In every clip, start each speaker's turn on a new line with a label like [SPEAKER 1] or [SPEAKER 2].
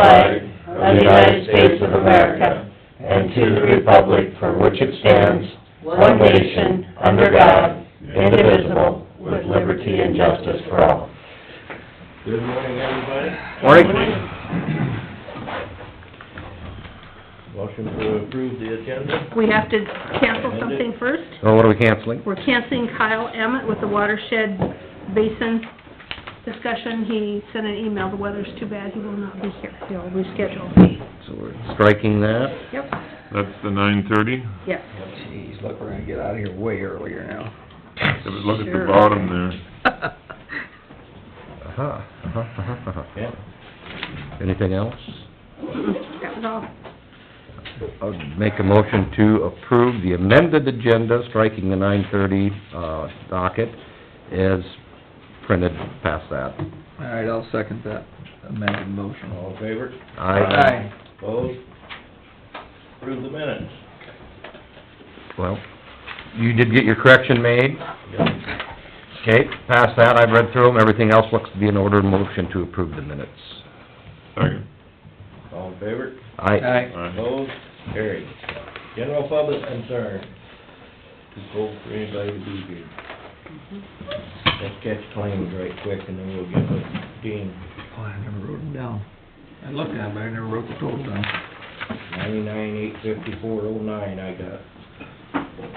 [SPEAKER 1] flag of the United States of America and to the republic for which it stands, one nation, under God, indivisible, with liberty and justice for all.
[SPEAKER 2] Good morning, everybody.
[SPEAKER 3] Morning.
[SPEAKER 2] Motion to approve the agenda.
[SPEAKER 4] We have to cancel something first.
[SPEAKER 3] So what are we canceling?
[SPEAKER 4] We're canceling Kyle Emmett with the watershed basin discussion. He sent an email, the weather's too bad, he will not be here. He'll reschedule.
[SPEAKER 3] So we're striking that.
[SPEAKER 4] Yep,
[SPEAKER 5] That's the nine thirty?
[SPEAKER 4] yes.
[SPEAKER 6] Jeez, look, we're gonna get out of here way earlier now.
[SPEAKER 5] Look at the
[SPEAKER 4] Sure.
[SPEAKER 5] bottom there.
[SPEAKER 3] Uh-huh, uh-huh, uh-huh, uh-huh.
[SPEAKER 2] Yeah.
[SPEAKER 3] Anything else?
[SPEAKER 4] Mm-mm, That was all.
[SPEAKER 3] I'll make a motion to approve the amended agenda, striking the nine thirty, uh, docket, as printed past that.
[SPEAKER 6] All right, I'll second that amended motion.
[SPEAKER 2] All in favor?
[SPEAKER 3] I,
[SPEAKER 2] Opposed? Approve the minutes.
[SPEAKER 3] well, you did get your correction made? Okay, past that, I've read through them, everything else looks to be in order, motion to approve the minutes.
[SPEAKER 5] Second.
[SPEAKER 2] All in favor?
[SPEAKER 3] I,
[SPEAKER 6] Aye.
[SPEAKER 5] Aye.
[SPEAKER 2] Opposed? Carried. General public concern. Too cold for anybody to be here. Let's catch claims right quick and then we'll get with Dean.
[SPEAKER 6] Oh, I never wrote them down. I looked at them, but I never wrote the total down.
[SPEAKER 2] Ninety-nine, eight fifty-four, oh nine I got.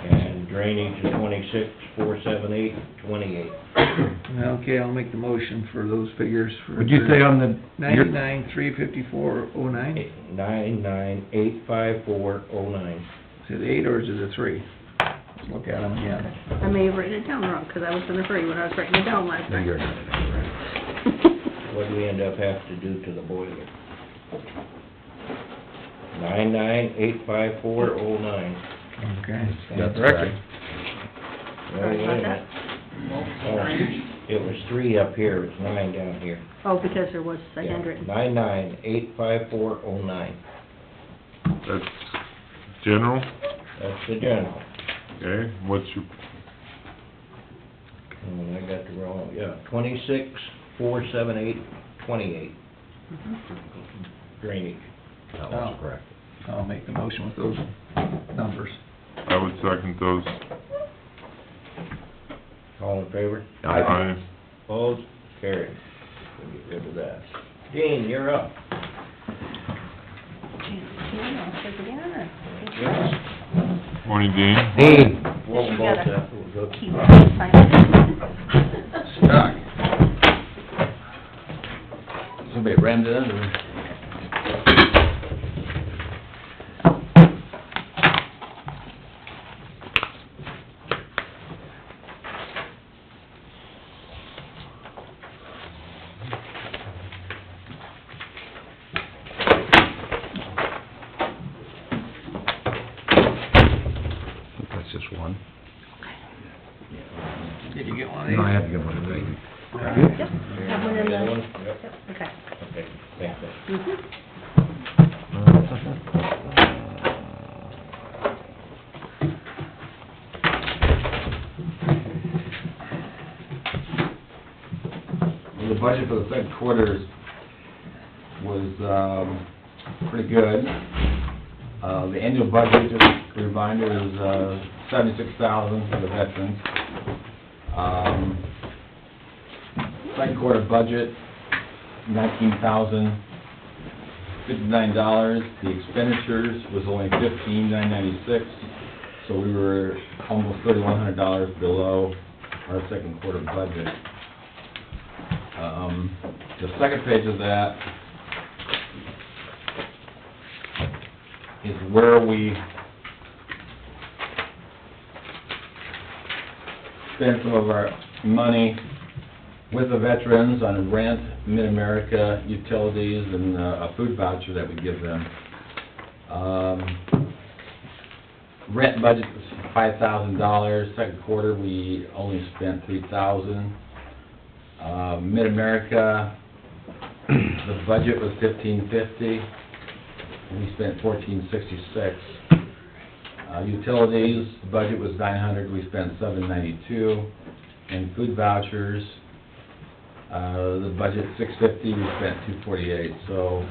[SPEAKER 2] And drainage is twenty-six, four seven eight, twenty-eight.
[SPEAKER 6] Okay, I'll make the motion for those figures for...
[SPEAKER 3] would you say uh, on the? your-
[SPEAKER 6] Ninety-nine, three fifty-four, oh nine? Is
[SPEAKER 2] Nine nine eight five four oh nine.
[SPEAKER 6] it eight or is it a three? Let's look at them again.
[SPEAKER 4] I may have written it down wrong, because I was in a hurry when I was writing it down last
[SPEAKER 3] You're
[SPEAKER 4] night.
[SPEAKER 3] not right.
[SPEAKER 2] What do we end up have to do to the boiler? Nine nine eight five four oh nine.
[SPEAKER 6] Okay.
[SPEAKER 3] That's
[SPEAKER 6] Correct.
[SPEAKER 3] correct.
[SPEAKER 4] Sorry about that.
[SPEAKER 2] Oh, It was three up here, it's nine down here.
[SPEAKER 4] Oh, because there was a handwritten.
[SPEAKER 2] Nine nine eight five four oh nine.
[SPEAKER 5] That's general,
[SPEAKER 2] That's the general.
[SPEAKER 5] okay, what's your,
[SPEAKER 2] Oh, I got the wrong, yeah, twenty-six, four seven eight, twenty-eight.
[SPEAKER 4] Mm-hmm.
[SPEAKER 2] Drainage. Oh.
[SPEAKER 3] That was correct.
[SPEAKER 6] I'll make the motion with those numbers.
[SPEAKER 5] I would second those.
[SPEAKER 2] All in favor?
[SPEAKER 3] I,
[SPEAKER 2] Opposed? Carried. We'll get rid of that. Dean, you're up.
[SPEAKER 5] Morning, Dean.
[SPEAKER 3] Dean,
[SPEAKER 2] Well, both that was up.
[SPEAKER 6] Doc?
[SPEAKER 7] Somebody rammed it under.
[SPEAKER 3] that's just one.
[SPEAKER 6] Did you get one of these?
[SPEAKER 3] No, I had to get one of these.
[SPEAKER 4] Yep, have one in
[SPEAKER 2] The other
[SPEAKER 4] the,
[SPEAKER 2] one? Yep,
[SPEAKER 4] yep, okay.
[SPEAKER 2] okay, thank you.
[SPEAKER 4] Mhm.
[SPEAKER 7] The budget for the third quarter is- was, um, pretty good. Uh, the annual budget, just a reminder, is, uh, seventy-six thousand for the veterans. Um, second quarter budget, nineteen thousand fifty-nine dollars. The expenditures was only fifteen nine ninety-six, so we were almost thirty-one hundred dollars below our second quarter budget. Um, the second page of that is where we spend some of our money with the veterans on rent, Mid-America, utilities, and uh, a food voucher that we give them. Um, Rent budget was five thousand dollars, second quarter, we only spent three thousand. Uh, Mid-America, the budget was fifteen fifty, we spent fourteen sixty-six. Uh, utilities, the budget was nine hundred, we spent seven ninety-two. And food vouchers, uh, the budget six fifty, we spent two forty-eight, so